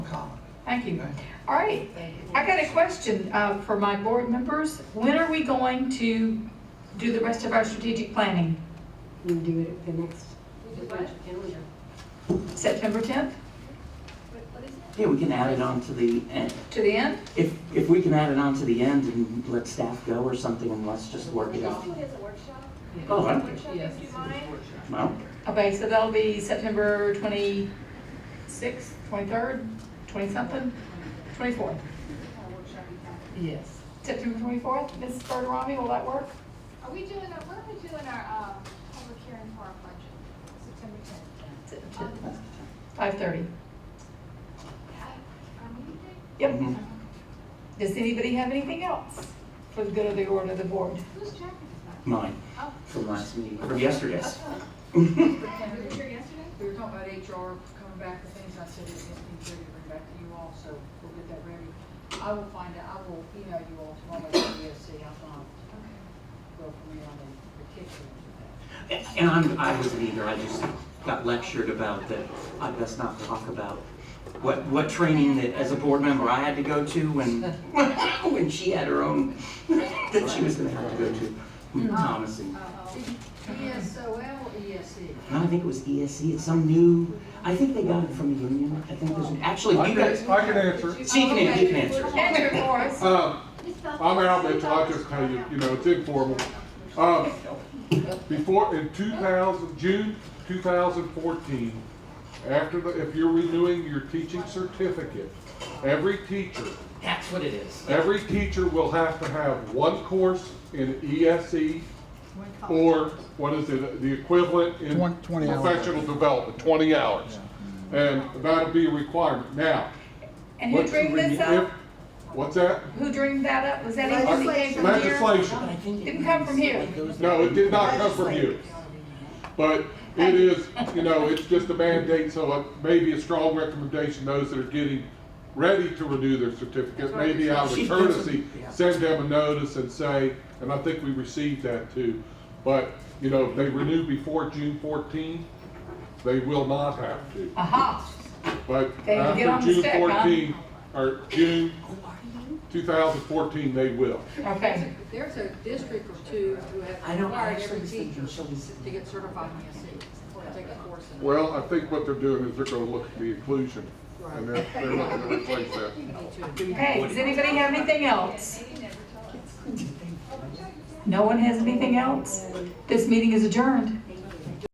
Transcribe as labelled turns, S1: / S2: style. S1: Thank you. All right, I got a question uh, for my board members. When are we going to do the rest of our strategic planning?
S2: We can do it at the next,
S1: September 10th
S3: Yeah, we can add it on to the end.
S1: to the end?
S3: If, if we can add it on to the end and let staff go or something and let's just work it out.
S4: It's a workshop,
S3: Oh, I don't care.
S4: workshop if you mind.
S3: Well,
S1: Okay, so that'll be September 26th, 23rd, 20-something, 24th.
S5: Yes.
S1: September 24th, Ms. Bertarami, will that work?
S4: Are we doing, our- when are we doing our, um, public hearing for our budget? September tenth?
S1: 5:30.
S4: Our meeting?
S1: Yep.
S3: mhm.
S1: Does anybody have anything else for the good of the order of the board?
S4: Who's checking this
S3: mine,
S4: out?
S3: from last meeting, from yesterday's.
S4: Oh, you were here yesterday?
S5: We were talking about HR coming back with things, I said it's gonna be good to bring back to you all, so we'll get that ready. I will find out, I will email you all tomorrow, and see how far go from here on in particular to that.
S3: And I'm, I wasn't either, I just got lectured about that, I best not talk about what, what training that, as a board member, I had to go to when, when she had her own, that she was gonna have to go to, Thomas and
S5: E ESOL, ESE.
S3: No, I think it was ESC, it's some new, I think they got it from the union, I think there's, actually,
S6: I
S3: you
S6: can,
S3: guys,
S6: I can answer.
S3: she can, you can answer.
S1: Andrew Morris,
S6: Uh, I'm Al so I'll just tell you, you know, it's informal. Uh, Before, in 2000, June 2014, after the, if you're renewing your teaching certificate, every teacher,
S3: That's what it is.
S6: every teacher will have to have one course in ESE or what is it, the equivalent in
S7: Twen- 20 hours.
S6: professional development, 20 hours. And that'll be a requirement. Now,
S1: and who
S6: what you
S1: dreamed this
S6: renew-
S1: up?
S6: What's that?
S1: Who dreamed that up? Was that anyone that came from here?
S6: Legislation.
S3: But I think it
S1: Didn't come from here.
S3: goes-
S6: No, it did not come from you. But it is, you know, it's just a mandate, so it may be a strong recommendation, those that are getting ready to renew their certificate, maybe out of
S3: She-
S6: courtesy,
S3: yeah.
S6: send them a notice and say, and I think we received that too. But, you know, if they renew before June fourteen, they will not have to.
S1: Aha,
S6: But
S1: Ah. They can get on
S6: after
S1: the
S6: June
S1: stick, huh?
S6: fourteen, or June two thousand fourteen, they will.
S1: okay.
S5: There's a district or two who
S3: I
S5: have
S3: don't
S5: required
S3: actually
S5: every
S3: think
S5: teacher
S3: she'll be sitting-
S5: to get certified in E ESE or take a course in it.
S6: Well, I think what they're doing is they're gonna look at the inclusion, and they're, they're looking to replace that.
S5: You need to.
S1: Okay, does anybody have anything else? No one has anything else? This meeting is adjourned.